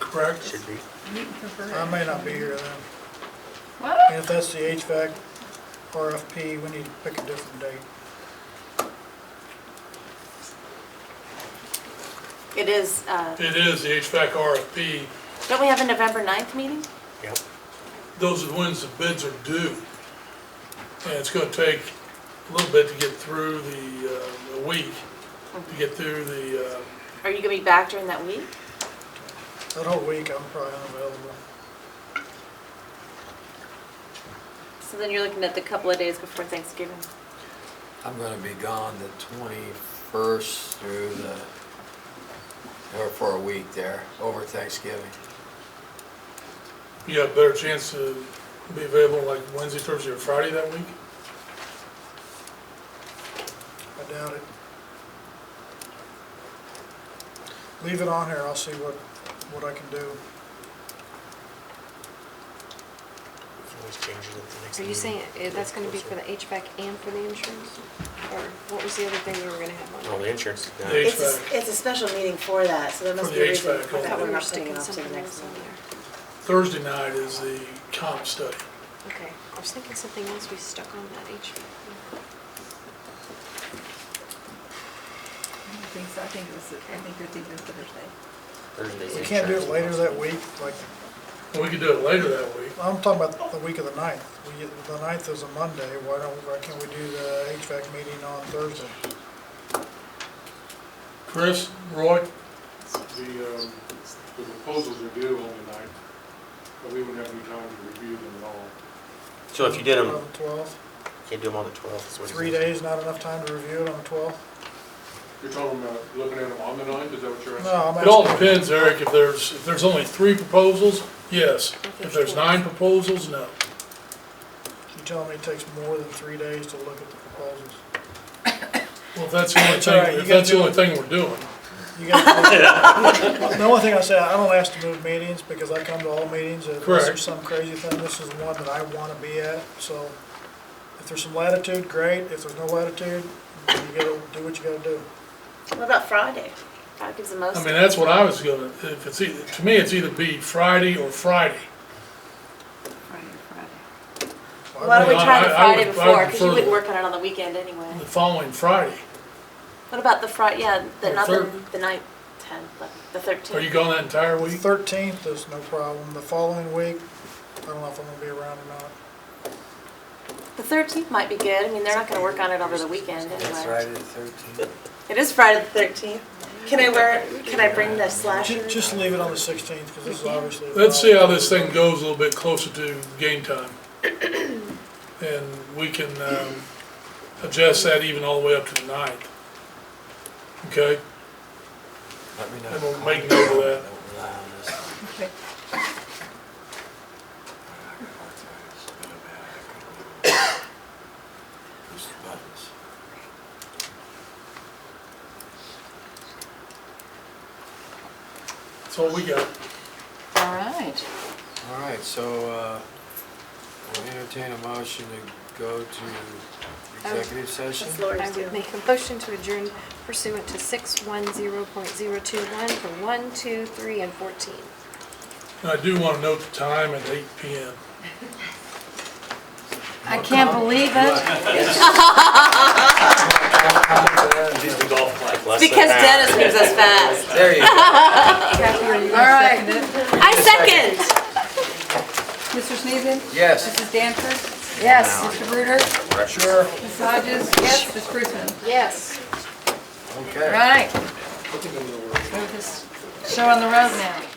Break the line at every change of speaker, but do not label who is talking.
correct?
should be.
You can prefer
I
it.
may not be here then.
What?
And if that's the HVAC RFP, we need to pick a different date.
It is, uh,
It is the HVAC RFP.
don't we have a November 9th meeting?
Yep.
Those are the ones the bids are due. And it's gonna take a little bit to get through the, uh, the week, to get through the, uh,
Are you gonna be back during that week?
That whole week, I'm probably unavailable.
So then you're looking at the couple of days before Thanksgiving.
I'm gonna be gone the twenty-first through the, or for a week there, over Thanksgiving.
you have a better chance to be available like Wednesday, Thursday, or Friday that week.
I doubt it. Leave it on here, I'll see what, what I can do.
You can always change it at the next
Are you
meeting.
saying it- that's gonna be for the HVAC and for the insurance? Or what was the other thing we were gonna have on?
Oh, the insurance. no.
The-
It's, a-
HVAC.
it's a special meeting for that, so there
For
must
the
be a reason
HVAC
for that
I thought
we're
we were
not putting
sticking
it off to the
something
next
else on
meeting.
there.
Thursday night is the comp study.
Okay, I was thinking something else we stuck on that HVAC.
I don't think so. I think it was, I think you're thinking of Thursday.
Thursday's
We can't do it later
insurance.
that week, like,
And we could do it later that week.
I'm talking about the week of the ninth. We, the ninth is a Monday, why don't, why can't we do the HVAC meeting on Thursday?
Chris, Roy,
The, um, the proposals are due on the night, but we wouldn't have any time to review them at all.
So if you did them,
On the twelfth,
can't do them on the 12th. is what it
three
says.
days, not enough time to review it on the twelfth?
You're talking about looking at them on the ninth, is that what you're asking?
No, I'm
It all
asking,
depends, Eric, if there's, if there's only three proposals, yes. If there's nine proposals, no.
you telling me it takes more than three days to look at the proposals?
Well, if that's the only
It's all right,
thing,
you
if that's the
gotta
only thing we're doing.
You guys, the only thing I say, I don't ask to move meetings because I come to all meetings. and If
Correct.
there's some crazy thing, this is one that I want to be at. So if there's some latitude, great. If there's no latitude, you gotta do what you gotta do.
What about Friday? That gives the most.
I mean, that's what I was gonna, if it's, either- to me, it's either be Friday or Friday.
Friday, Friday.
Why don't we
I-
try the
I- I
Friday
would- I
before,
would
because you
prefer
wouldn't
the-
work on it on the weekend anyway.
The following Friday.
What about the Fri, yeah, the,
The
not the,
third.
the ninth, tenth, but the
Are you
thirteenth?
going that entire
The
week?
thirteenth is no problem. The following week, I don't know if I'm gonna be around or not.
The thirteenth might be good, I mean, they're not gonna work on it over the weekend anyway.
That's Friday the thirteenth.
It is Friday the thirteenth. Can I wear, can I bring the
Ju-
slasher?
Just leave it on the sixteenth because this is obviously.
Let's see how this thing goes a little bit closer to game time. And we can, um, adjust that even all the way up to the ninth. Okay?
Let me know.
And we'll make note of that.
Don't rely on this.
Okay.
Push the buttons.
That's all we got.
All right.
All right, so, uh, we'll entertain a motion to go to executive session.
That's Lori's
I
doing.
would make a motion to adjourn pursuant to six one zero point zero two one for one, two, three, and fourteen.
And I do wanna note the time at eight P M.
I can't believe it.
Like less than
Because
an hour.
Dennis moves us fast.
There you go.
All right.
I second.
Mr. Sneeden?
Yes.
Mrs. Danforth? Yes. Mr. Bruder?
Sure.
Mrs. Hodges? Yes. Ms. Fruitman?
Yes.
Okay.
Right. So we're on the road now.